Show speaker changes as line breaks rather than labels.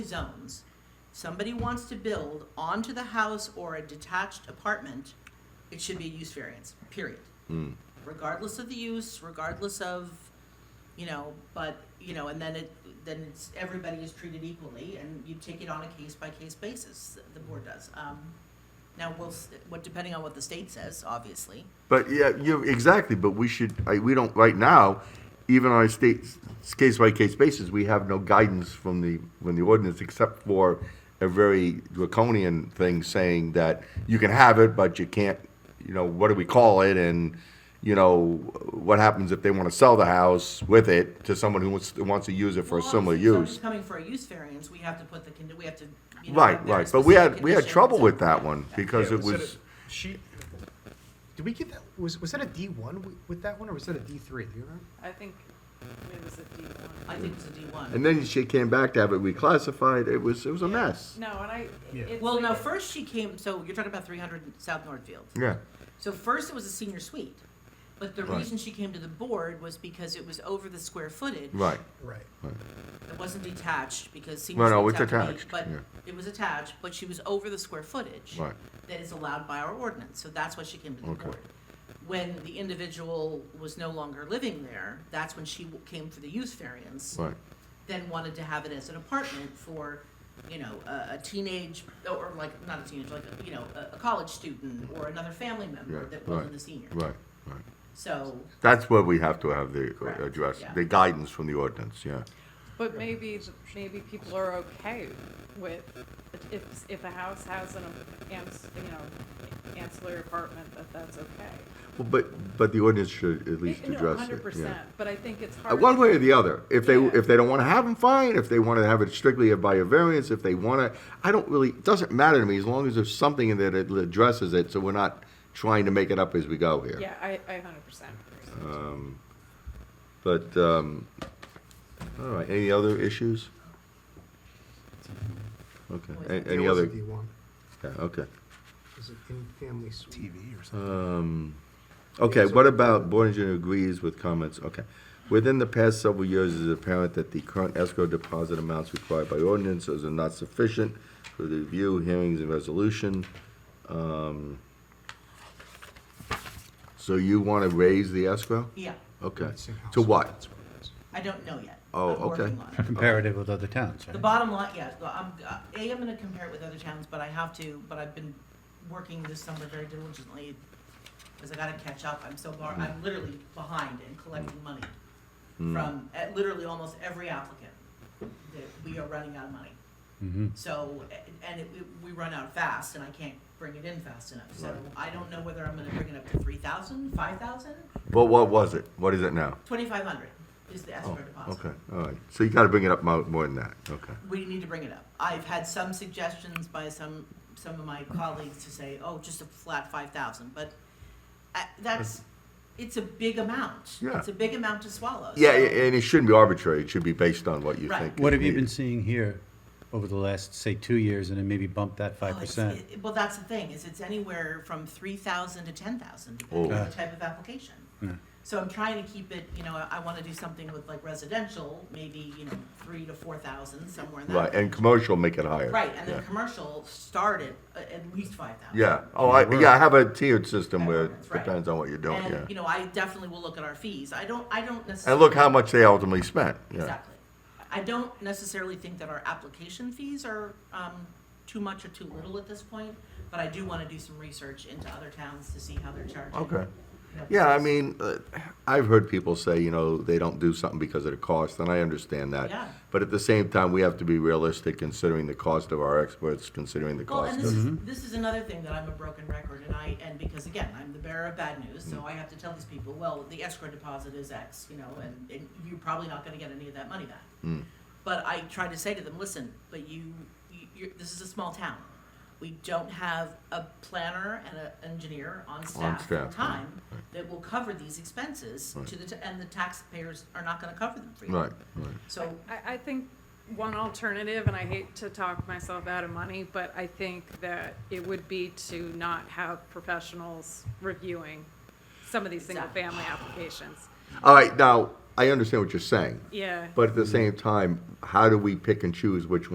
zones, somebody wants to build onto the house or a detached apartment, it should be a use variance, period.
Hmm.
Regardless of the use, regardless of, you know, but, you know, and then it, then it's, everybody is treated equally and you take it on a case-by-case basis, the board does. Um, Now, we'll, s- what, depending on what the state says, obviously.
But yeah, you exactly. But we should. I, we don't right now. Even on a state case by case basis, we have no guidance from the from the ordinance except for a very draconian thing saying that you can have it, but you can't. You know what do we call it? And you know what happens if they want to sell the house with it to someone who wants, wants to use it for a
Well,
similar
obviously, if somebody's
use?
Coming for a use variance, we have to put the, condi- we have to, you know.
Right,
have very
right. But we had
specific
we had
conditions
trouble
and-
with that one because
Yeah,
it
that
was.
a- She,
Did we get that? Was was that a D one with that one, or was that a D three? Do you remember?
I think it was a D one.
I think it's a D one.
And then she came back to have it reclassified. It was it was a mess.
No, and I,
Yeah.
it's
Well,
like
no,
a-
first she came, so you're talking about three hundred South Northfield.
Yeah.
So first it was a senior suite, but the
Right.
reason she came to the board was because it was over the square footage.
Right.
Right.
It wasn't detached because senior
No,
suites
no, it's
have to be-
attached,
But
yeah.
it was attached, but she was over the square footage.
Right.
That is allowed by our ordinance, so that's why she came to the
Okay.
board. When the individual was no longer living there, that's when she w- came for the use variance.
Right.
then wanted to have it as an apartment for, you know, a, a teenage, or like, not a teenage, like, you know, a, a college student or another family member
Yeah,
that wasn't
right,
a senior.
Right, right.
So,
That's where we have to have the uh,
Correct,
address,
yeah.
the guidance from the ordinance, yeah.
But maybe, maybe people are okay with, if, if a house has an, ans- you know, ancillary apartment, that that's okay. Eh,
Well, But, but the ordinance should at least
No,
address
Hundred
it, yeah.
percent, but I think it's
Uh,
hard.
One way or the other. If they,
Yeah.
if they don't want to have them, fine. If they want to have it strictly by a variance, if they want to, I don't really, it doesn't matter to me as long as there's something in there that addresses it, so we're not trying to make it up as we go here.
Yeah, I, I hundred percent agree.
Uh. But, um, all right, any other issues? Okay,
Well,
A-
There
any
was a
other,
D one?
yeah, okay.
Was it in family suite? TV or something?
Okay,
so-
what about board engineer agrees with comments, okay. Within the past several years, it is apparent that the current escrow deposit amounts required by ordinances are not sufficient for the review, hearings, and resolution. Um, So you wanna raise the escrow?
yeah,
Okay, to what?
I don't know yet.
Oh,
I'm working
okay.
on it.
comparative with other towns,
The
right?
bottom line, yeah, well, I'm, uh, A, I'm gonna compare it with other towns, but I have to, but I've been working this summer very diligently because I gotta catch up. I'm so far, I'm literally behind in collecting money from, at literally almost every applicant that we are running out of money. So, a- and it, we- we run out fast and I can't bring it in fast enough. So I don't know whether I'm gonna bring it up to three thousand, five thousand,
Well, what was it? What is it now?
twenty-five hundred is the escrow
Oh,
deposit.
okay, all right, so you gotta bring it up mo- more than that, okay.
we need to bring it up. I've had some suggestions by some, some of my colleagues to say, oh, just a flat five thousand, but uh, that's, it's a big amount.
Yeah.
It's a big amount to swallow.
Yeah,
So-
a- and it shouldn't be arbitrary, it should be based on what you
Right.
think. is
What have you been
needed.
seeing here over the last, say, two years, and then maybe bump that
Oh,
five
it's-
percent?
it- Well, that's the thing, is it's anywhere from three thousand to ten thousand, depending
Oh.
on
Yeah.
the type of application. So I'm trying to keep it, you know, I- I wanna do something with like residential, maybe, you know, three to four thousand, somewhere in that.
Right, and commercial make it higher.
Right, and
Yeah.
then commercial started at at least five thousand.
Yeah. Oh, I, yeah, I have a tiered system
That
where
works,
it
right.
depends on what you're doing,
And, you
yeah.
know, I definitely will look at our fees. I don't, I don't
And
necessarily.
look how much they ultimately spent, yeah.
Exactly. I don't necessarily think that our application fees are, um, too much or too little at this point, but I do wanna do some research into other towns to see how they're charging.
Okay.
you know,
Yeah, I
fees.
mean, uh, I've heard people say, you know, they don't do something because of the cost, and I understand that.
Yeah.
But at the same time, we have to be realistic considering the cost of our experts, considering the
Well,
cost
and this
of.
is, this is another thing that I'm a broken record and I, and because again, I'm the bearer of bad news,
Mm.
so I have to tell these people, well, the escrow deposit is X, you know, and, and you're probably not gonna get any of that money back.
Mm.
But I try to say to them, listen, but you, you, you're, this is a small town. We don't have a planner and an engineer on staff
staff,
full
right,
time that will cover these expenses to the, t- and the taxpayers are not gonna cover them for you.
Right, right.
So,
I, I think one alternative, and I hate to talk myself out of money, but I think that it would be to not have professionals reviewing some of these
Exactly.
single-family applications.
All right, now, I understand what you're saying,
Yeah.
Mm-hmm.
but at the same time, how do we pick and choose which